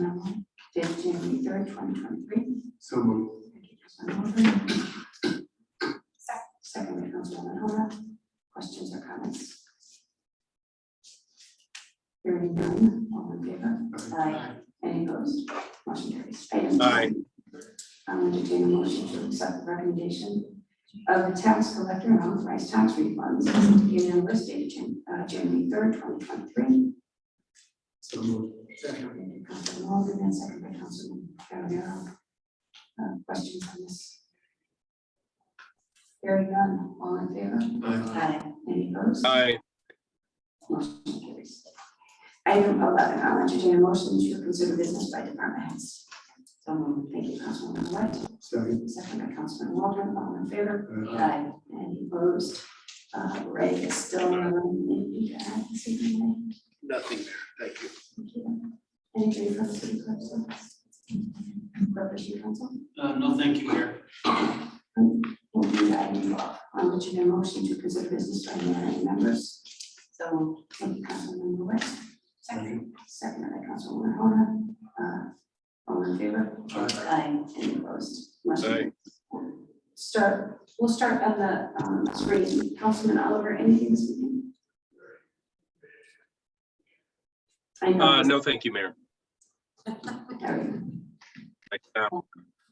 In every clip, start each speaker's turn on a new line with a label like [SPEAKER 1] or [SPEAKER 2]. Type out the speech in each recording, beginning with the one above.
[SPEAKER 1] memo dated January third, twenty twenty-three.
[SPEAKER 2] So moved.
[SPEAKER 1] Thank you, Councilman Holden. Second, by Councilwoman Hona. Questions or comments? Hearing none, all in favor? Aye. Any opposed? Motion carries. Item
[SPEAKER 3] Aye.
[SPEAKER 1] ten. I'll entertain a motion to accept the recommendation of the tax collector and authorize tax refunds in the list dated Jan- uh, January third, twenty twenty-three.
[SPEAKER 2] So moved. Second.
[SPEAKER 1] Councilman Walden and second by Councilman Carabello. Uh, Questions on this? Hearing none, all in favor?
[SPEAKER 2] Aye.
[SPEAKER 1] Any opposed?
[SPEAKER 3] Aye.
[SPEAKER 1] Motion carries. Item eleven, I'll entertain a motion to consider business by department heads. So moved. Thank you, Councilwoman White.
[SPEAKER 2] Second. Uh,
[SPEAKER 1] Second by Councilman Waldron, all in favor?
[SPEAKER 2] Aye.
[SPEAKER 1] Any opposed? Uh, Ray is still um, in the act this evening,
[SPEAKER 3] Nothing there, thank you.
[SPEAKER 1] Ray. Thank you. Anything from the city clerk's office? Corporation Council?
[SPEAKER 4] Uh, no, thank you, Mayor.
[SPEAKER 1] Will be item twelve, I'll entertain a motion to consider business by mayor and members. So moved. Thank you, Councilmember West.
[SPEAKER 2] Second.
[SPEAKER 1] Second by Councilwoman Hona. Uh, All in favor?
[SPEAKER 2] Aye.
[SPEAKER 1] Aye. Any opposed? Motion
[SPEAKER 3] Aye.
[SPEAKER 1] carries. Start, we'll start on the um, screen. Councilman Oliver, anything this evening? I
[SPEAKER 3] Uh,
[SPEAKER 1] know.
[SPEAKER 3] no, thank you, Mayor.
[SPEAKER 1] There we go.
[SPEAKER 3] I, uh,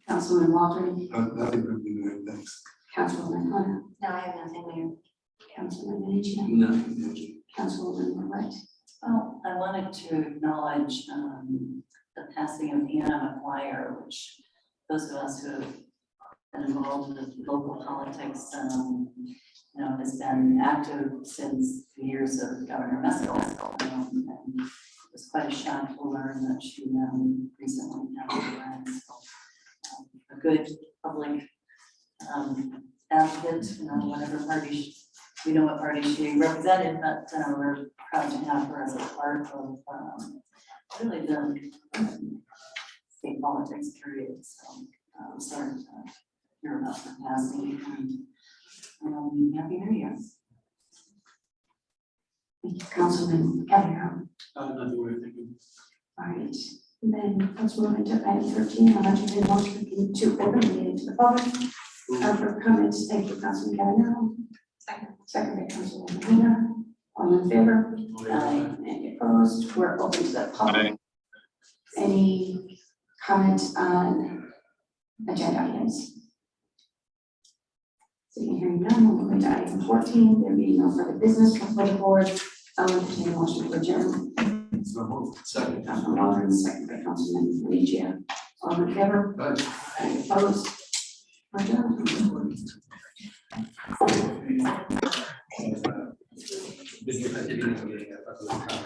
[SPEAKER 1] Councilman Waldron,
[SPEAKER 2] Uh, Nothing from you, Mayor. thanks.
[SPEAKER 1] Councilwoman Hona,
[SPEAKER 5] No, I have nothing, Mayor.
[SPEAKER 1] Councilman Minichia,
[SPEAKER 2] Nothing, thank you.
[SPEAKER 1] Councilwoman White.
[SPEAKER 5] Well, I wanted to acknowledge um, the passing of Anna McGuire, which those of us who have been involved with local politics, um, you know, has been active since the years of Governor Messel. Um, and It was quite a shock to learn that she um, recently passed away. So, um, A good public um, advocate, you know, whatever party, she- we know what party she represented, but uh, we're proud to have her as a part of, um, really the um, state politics period, so, um, sorry to hear about her passing, and, um, happy new year.
[SPEAKER 1] Thank you, Councilman Cavanaugh.
[SPEAKER 4] Uh, nothing, Mayor, thank you.
[SPEAKER 1] All right, then Councilwoman to item thirteen, I'll entertain a motion to open the meeting to the public. Uh, for comments, thank you, Councilman Cavanaugh. Second. Second by Councilwoman Hona. All in favor?
[SPEAKER 5] Aye.
[SPEAKER 1] Any opposed? We're open to the public. Any comments on agenda items? Seeing hearing none, we'll move to item fourteen, there being no further business before the board. I'll entertain a motion to adjourn.
[SPEAKER 2] So moved. Second.
[SPEAKER 1] Councilman Waldron, second by Councilman Minichia. All in favor?
[SPEAKER 2] Aye.
[SPEAKER 1] Any opposed? We're adjourned.
[SPEAKER 2] This is a different meeting, I thought it was-